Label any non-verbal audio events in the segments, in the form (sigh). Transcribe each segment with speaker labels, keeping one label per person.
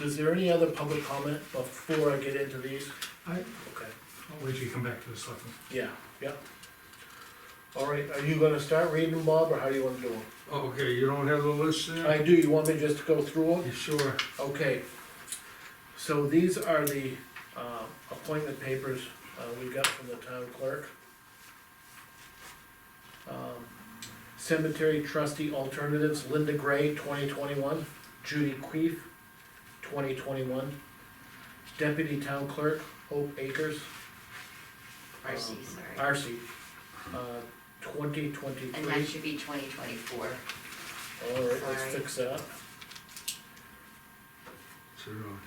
Speaker 1: Is there any other public comment before I get into these?
Speaker 2: I,
Speaker 1: Okay,
Speaker 2: I'll wait till you come back to the selectmen.
Speaker 1: yeah, yeah. All right, are you gonna start reading, Bob, or how do you wanna do it?
Speaker 3: Okay, you don't have the list
Speaker 1: I
Speaker 3: there?
Speaker 1: do, you want me just to go through them?
Speaker 3: You sure?
Speaker 1: Okay, so these are the, uh, appointment papers, uh, we got from the town clerk. Um, Cemetery trustee alternatives, Linda Gray, twenty twenty-one, Judy Queef, twenty twenty-one. Deputy town clerk, Hope Akers,
Speaker 4: RC,
Speaker 1: Oh,
Speaker 4: sorry.
Speaker 1: RC, uh, twenty twenty-three.
Speaker 4: And that should be twenty twenty-four.
Speaker 1: All right, let's
Speaker 4: Sorry.
Speaker 1: fix that.
Speaker 3: It's around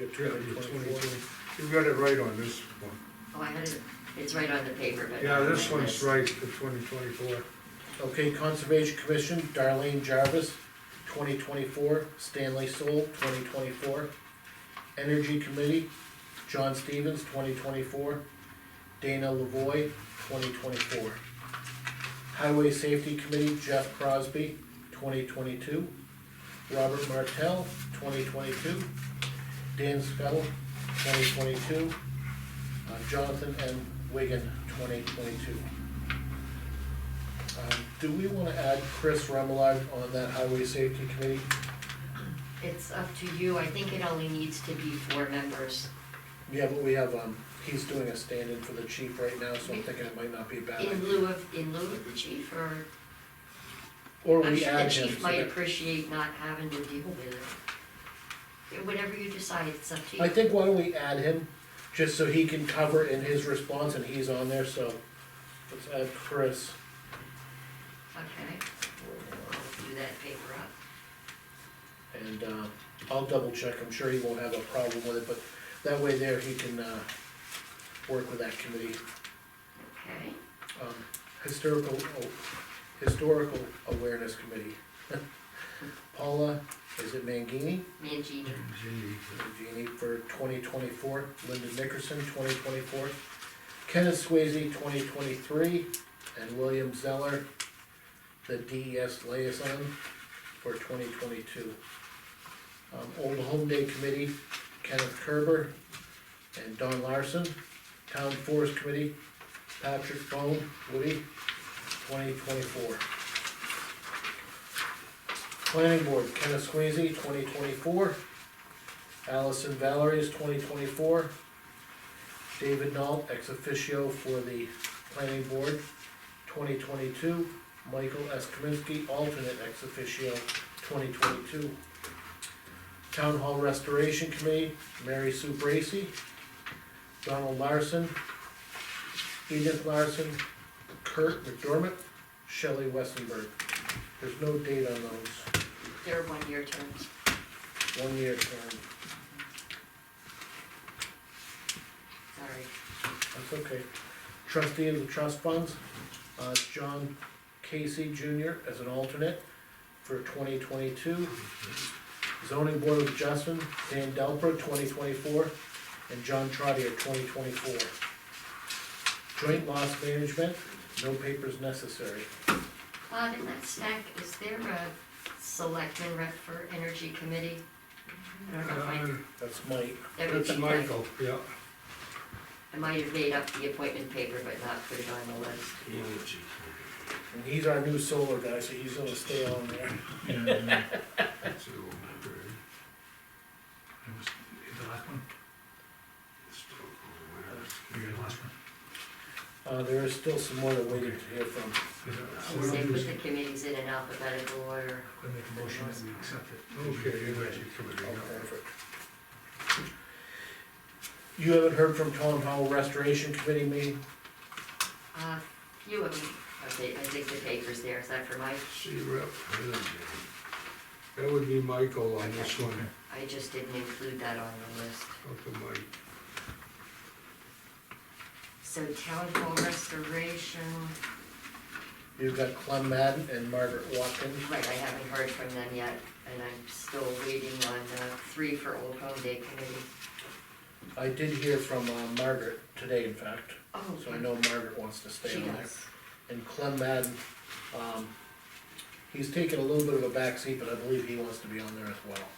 Speaker 1: You got
Speaker 3: here. Yeah, you're
Speaker 1: 2024.
Speaker 3: 22. You got it right on this one.
Speaker 4: Oh, I had it, it's right on the paper, but.
Speaker 3: Yeah,
Speaker 4: not on
Speaker 3: this
Speaker 4: my
Speaker 3: one's
Speaker 4: list.
Speaker 3: right, the twenty twenty-four.
Speaker 1: Okay, Conservation Commission, Darlene Jarvis, twenty twenty-four, Stanley Soul, twenty twenty-four. Energy Committee, John Stevens, twenty twenty-four, Dana Lavoy, twenty twenty-four. Highway Safety Committee, Jeff Crosby, twenty twenty-two, Robert Martell, twenty twenty-two, Dan Scuttle, twenty twenty-two, Uh, Jonathan M. Wigan, twenty twenty-two. Um, Do we wanna add Chris Remillard on that highway safety committee?
Speaker 4: It's up to you, I think it only needs to be four members.
Speaker 1: Yeah, but we have, um, he's doing a stand-in for the chief right now, so I'm thinking it might not be a bad.
Speaker 4: In
Speaker 1: idea.
Speaker 4: lieu of, in lieu of the chief, or,
Speaker 1: Or
Speaker 4: I'm
Speaker 1: we
Speaker 4: sure the
Speaker 1: add him.
Speaker 4: chief
Speaker 1: so
Speaker 4: might
Speaker 1: that-
Speaker 4: appreciate not having to deal with it. Whatever you decide, it's up to you.
Speaker 1: I think why don't we add him, just so he can cover in his response and he's on there, so let's add Chris.
Speaker 4: Okay, I'll do that paper up.
Speaker 1: And, uh, I'll double check, I'm sure he won't have a problem with it, but that way there he can, uh, work with that committee.
Speaker 4: Okay,
Speaker 1: um, historical, oh, historical awareness committee. (laughs) Paula, is it Mangini?
Speaker 4: me and Gina.
Speaker 1: Mangini E for twenty twenty-four, Linda Nickerson, twenty twenty-four, Kenneth Swayze, twenty twenty-three, and William Zeller, the DES liaison for twenty twenty-two. Um, Old Home Day Committee, Kenneth Kerber and Don Larson. Town Forest Committee, Patrick Bone, Woody, twenty twenty-four. Planning Board, Kenneth Swayze, twenty twenty-four, Allison Valerie is twenty twenty-four. David Knoll, ex officio for the planning board, twenty twenty-two. Michael S. Kaminsky, alternate ex officio, twenty twenty-two. Town Hall Restoration Committee, Mary Sue Bracy, Donald Larson, Edith Larson, Kurt McDermott, Shelley Westenberg. There's no date on those,
Speaker 4: They're one-year terms.
Speaker 1: one-year term.
Speaker 4: Sorry.
Speaker 1: That's okay. Trustee of the trust funds, uh, John Casey Junior as an alternate for twenty twenty-two. Zoning Board of Adjustment, Dan Delper, twenty twenty-four, and John Trotter, twenty twenty-four. Joint loss management, no papers necessary.
Speaker 4: Bob, in Uh, that stack, is there a selectman rep for energy committee? I don't know if I,
Speaker 1: That's Mike.
Speaker 4: that would
Speaker 3: Uh, That's
Speaker 4: be my,
Speaker 3: Michael, yeah.
Speaker 4: I might have made up the appointment paper, but not put it on the list.
Speaker 1: And he's our new solar guy, so he's gonna stay on there.
Speaker 3: That's the old one.
Speaker 2: That was, is the last one? Or your last one?
Speaker 1: Uh, there is still some more that we need to hear from.
Speaker 2: So
Speaker 4: Say
Speaker 2: we'll
Speaker 4: put
Speaker 2: just-
Speaker 4: the committees in an alphabetical order.
Speaker 2: we'll make a motion that we accept it.
Speaker 3: Okay, you guys are coming
Speaker 1: Oh,
Speaker 3: in.
Speaker 1: perfect. You haven't heard from Tom Howell Restoration Committee meeting?
Speaker 4: Uh, few of them, okay, I think the paper's there, is that for Mike?
Speaker 3: See rep. That would be Michael on this one,
Speaker 4: I just didn't include that on the list.
Speaker 3: up to Mike.
Speaker 4: So town hall restoration,
Speaker 1: You've got Clem Madden and Margaret Watkins.
Speaker 4: right, I haven't heard from them yet, and I'm still waiting on, uh, three for Old Home Day Committee.
Speaker 1: I did hear from uh, Margaret today, in fact,
Speaker 4: Oh,
Speaker 1: so I know Margaret wants to stay
Speaker 4: she
Speaker 1: on there.
Speaker 4: does.
Speaker 1: And Clem Madden, um, He's taken a little bit of a backseat, but I believe he wants to be on there as well.